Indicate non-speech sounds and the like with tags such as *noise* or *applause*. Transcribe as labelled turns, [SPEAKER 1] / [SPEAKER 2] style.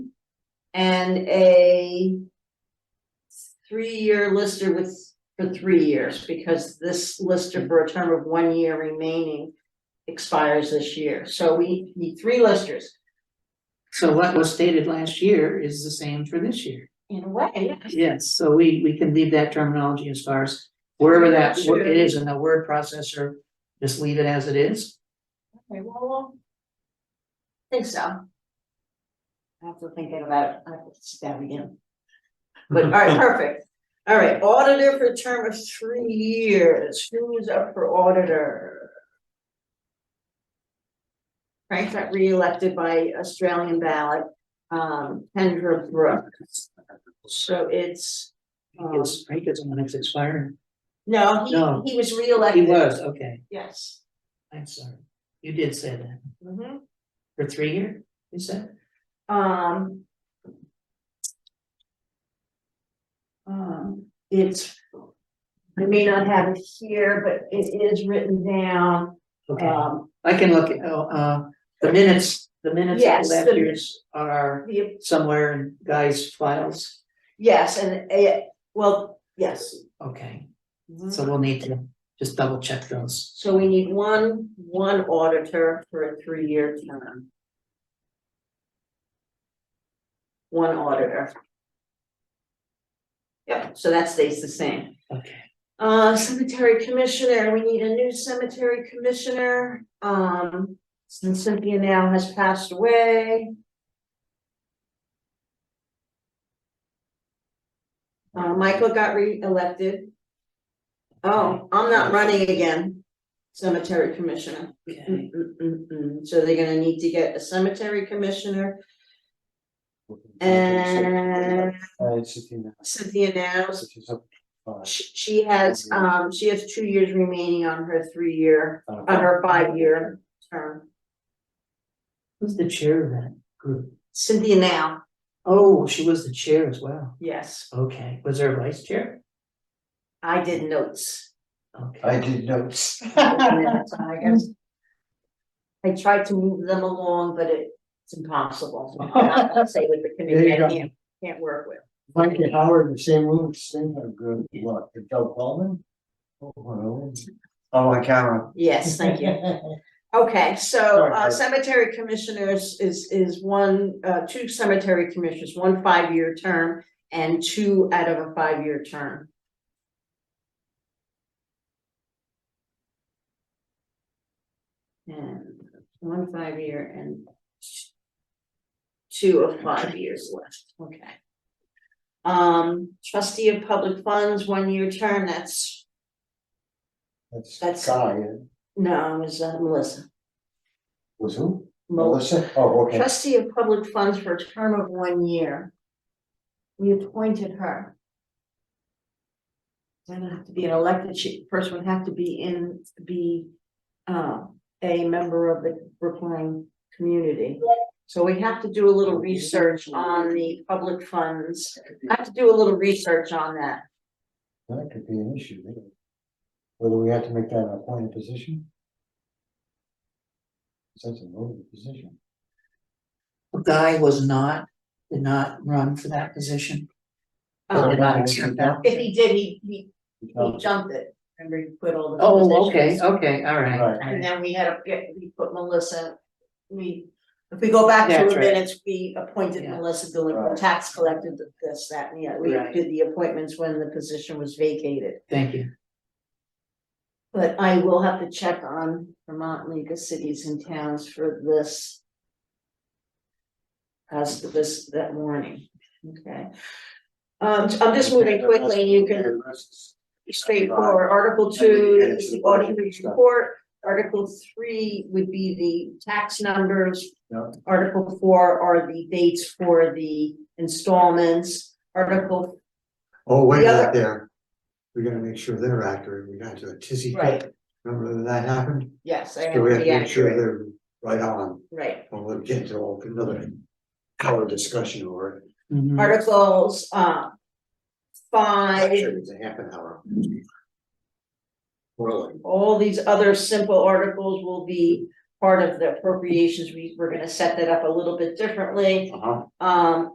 [SPEAKER 1] and a three-year lister with, for three years, because this lister for a term of one year remaining expires this year, so we need three listers.
[SPEAKER 2] So what was stated last year is the same for this year.
[SPEAKER 1] In a way.
[SPEAKER 2] Yes, so we, we can leave that terminology as far as wherever that, wo- it is in the word processor, just leave it as it is.
[SPEAKER 1] Okay, well. I Think so. I have to think about it, I have to sit down
[SPEAKER 2] *laughs*
[SPEAKER 1] again. But, all right, perfect. All right, auditor for a term of three years, who's up for auditor? Frank got reelected by Australian ballot, um, Kendra Brooks. So it's, um,
[SPEAKER 2] It's, I think it's when it's expiring.
[SPEAKER 1] no,
[SPEAKER 2] No.
[SPEAKER 1] he, he was
[SPEAKER 2] He
[SPEAKER 1] reelected.
[SPEAKER 2] was, okay,
[SPEAKER 1] Yes.
[SPEAKER 2] I'm sorry. You did say that.
[SPEAKER 1] Mhm.
[SPEAKER 2] For three year, you said?
[SPEAKER 1] Um. Um, it's. I may not have it here, but it is written down,
[SPEAKER 2] Okay,
[SPEAKER 1] um,
[SPEAKER 2] I can look, at- oh, uh, the minutes, the minutes
[SPEAKER 1] Yes,
[SPEAKER 2] of last
[SPEAKER 1] the-
[SPEAKER 2] year's are
[SPEAKER 1] the,
[SPEAKER 2] somewhere in Guy's files.
[SPEAKER 1] yes, and it, well, yes.
[SPEAKER 2] Okay, so we'll need to just double check those.
[SPEAKER 1] So we need one, one auditor for a three-year term. One auditor. Yep, so that stays the same.
[SPEAKER 2] Okay.
[SPEAKER 1] Uh, cemetery commissioner, we need a new cemetery commissioner, um, since Cynthia now has passed away. Uh, Michael got re-elected. Oh, I'm not running again, cemetery commissioner.
[SPEAKER 2] Okay,
[SPEAKER 1] Mm, mm, mm, mm. So they're gonna need to get a cemetery commissioner and
[SPEAKER 3] Uh, Sixteen,
[SPEAKER 1] Cynthia now,
[SPEAKER 3] sixteen, so, uh,
[SPEAKER 1] She, she has, um, she has two years remaining on her three-year,
[SPEAKER 3] uh,
[SPEAKER 1] on her five-year term.
[SPEAKER 2] who's the chair of that group?
[SPEAKER 1] Cynthia now,
[SPEAKER 2] Oh, she was the chair as well.
[SPEAKER 1] yes,
[SPEAKER 2] Okay, was there a vice chair?
[SPEAKER 1] I did *laughs* notes.
[SPEAKER 3] I
[SPEAKER 2] Okay,
[SPEAKER 3] did notes.
[SPEAKER 1] Minutes, I guess. I tried to move them along, but it- it's *laughs* impossible. I'll I'll say with the committee,
[SPEAKER 3] There you
[SPEAKER 1] I
[SPEAKER 3] go.
[SPEAKER 1] can't, can't work with.
[SPEAKER 3] Mike and Howard, the same room, same, uh, good luck, and Doug Bowman. Oh, well, I'm on camera.
[SPEAKER 1] Yes, thank you. Okay, so
[SPEAKER 3] Sorry,
[SPEAKER 1] uh
[SPEAKER 3] Barb.
[SPEAKER 1] cemetery commissioners is is one, uh two cemetery commissioners, one five-year term and two out of a five-year term. And one five-year and two of five years left, okay. Um trustee of public funds, one-year term, that's,
[SPEAKER 3] That's
[SPEAKER 1] That's-
[SPEAKER 3] Guy, uh,
[SPEAKER 1] no, it was uh, Melissa.
[SPEAKER 3] was who?
[SPEAKER 1] Melissa.
[SPEAKER 3] Melissa? Oh, okay.
[SPEAKER 1] trustee of public funds for a term of one year. We appointed her. Doesn't have to be an elected, she, person would have to be in, be, uh, a member of the Brookline community. So we have to do a little research on the public funds, I have to do a little research on that.
[SPEAKER 3] That could be an issue, really. Whether we have to make that an appointed position? 'Cause That's a loaded position.
[SPEAKER 2] Guy was not, did not run for that position.
[SPEAKER 1] Um,
[SPEAKER 2] did not accept that.
[SPEAKER 1] if he did, he, he, he
[SPEAKER 3] Because-
[SPEAKER 1] jumped it, remember, he quit all the.
[SPEAKER 2] Oh,
[SPEAKER 1] positions.
[SPEAKER 2] okay, okay, all right.
[SPEAKER 3] Right.
[SPEAKER 1] And then we had a, we put Melissa, we, if we go back to
[SPEAKER 2] That's
[SPEAKER 1] the
[SPEAKER 2] right.
[SPEAKER 1] minutes, we appointed
[SPEAKER 2] Yeah.
[SPEAKER 1] Melissa Dillon,
[SPEAKER 3] Right.
[SPEAKER 1] tax collector, th- this, that, and the other. We
[SPEAKER 2] Right.
[SPEAKER 1] did the appointments when the position was vacated.
[SPEAKER 2] Thank you.
[SPEAKER 1] But I will have to check on Vermont League of Cities and Towns for this. As to this, that warning, okay? Um, I'm just moving quickly, you can straightforward. Article two is the audit report. Article three would be the tax numbers.
[SPEAKER 3] Yeah.
[SPEAKER 1] Article four are the dates for the installments. Article,
[SPEAKER 3] Oh, wait
[SPEAKER 1] The
[SPEAKER 3] a
[SPEAKER 1] other-
[SPEAKER 3] minute there. We gotta make sure they're accurate. We got to a tizzy.
[SPEAKER 1] right,
[SPEAKER 3] Remember when that happened?
[SPEAKER 1] yes, I have
[SPEAKER 3] So we
[SPEAKER 1] to
[SPEAKER 3] have
[SPEAKER 1] be
[SPEAKER 3] to make sure
[SPEAKER 1] accurate,
[SPEAKER 3] they're right on.
[SPEAKER 1] right.
[SPEAKER 3] And we'll get into all- another hour discussion over it.
[SPEAKER 2] Mhm.
[SPEAKER 1] Articles, uh, five,
[SPEAKER 3] Actually, it's a half an hour. Really?
[SPEAKER 1] all these other simple articles will be part of the appropriations. We, we're gonna set that up a little bit differently.
[SPEAKER 3] Uh-huh.
[SPEAKER 1] Um,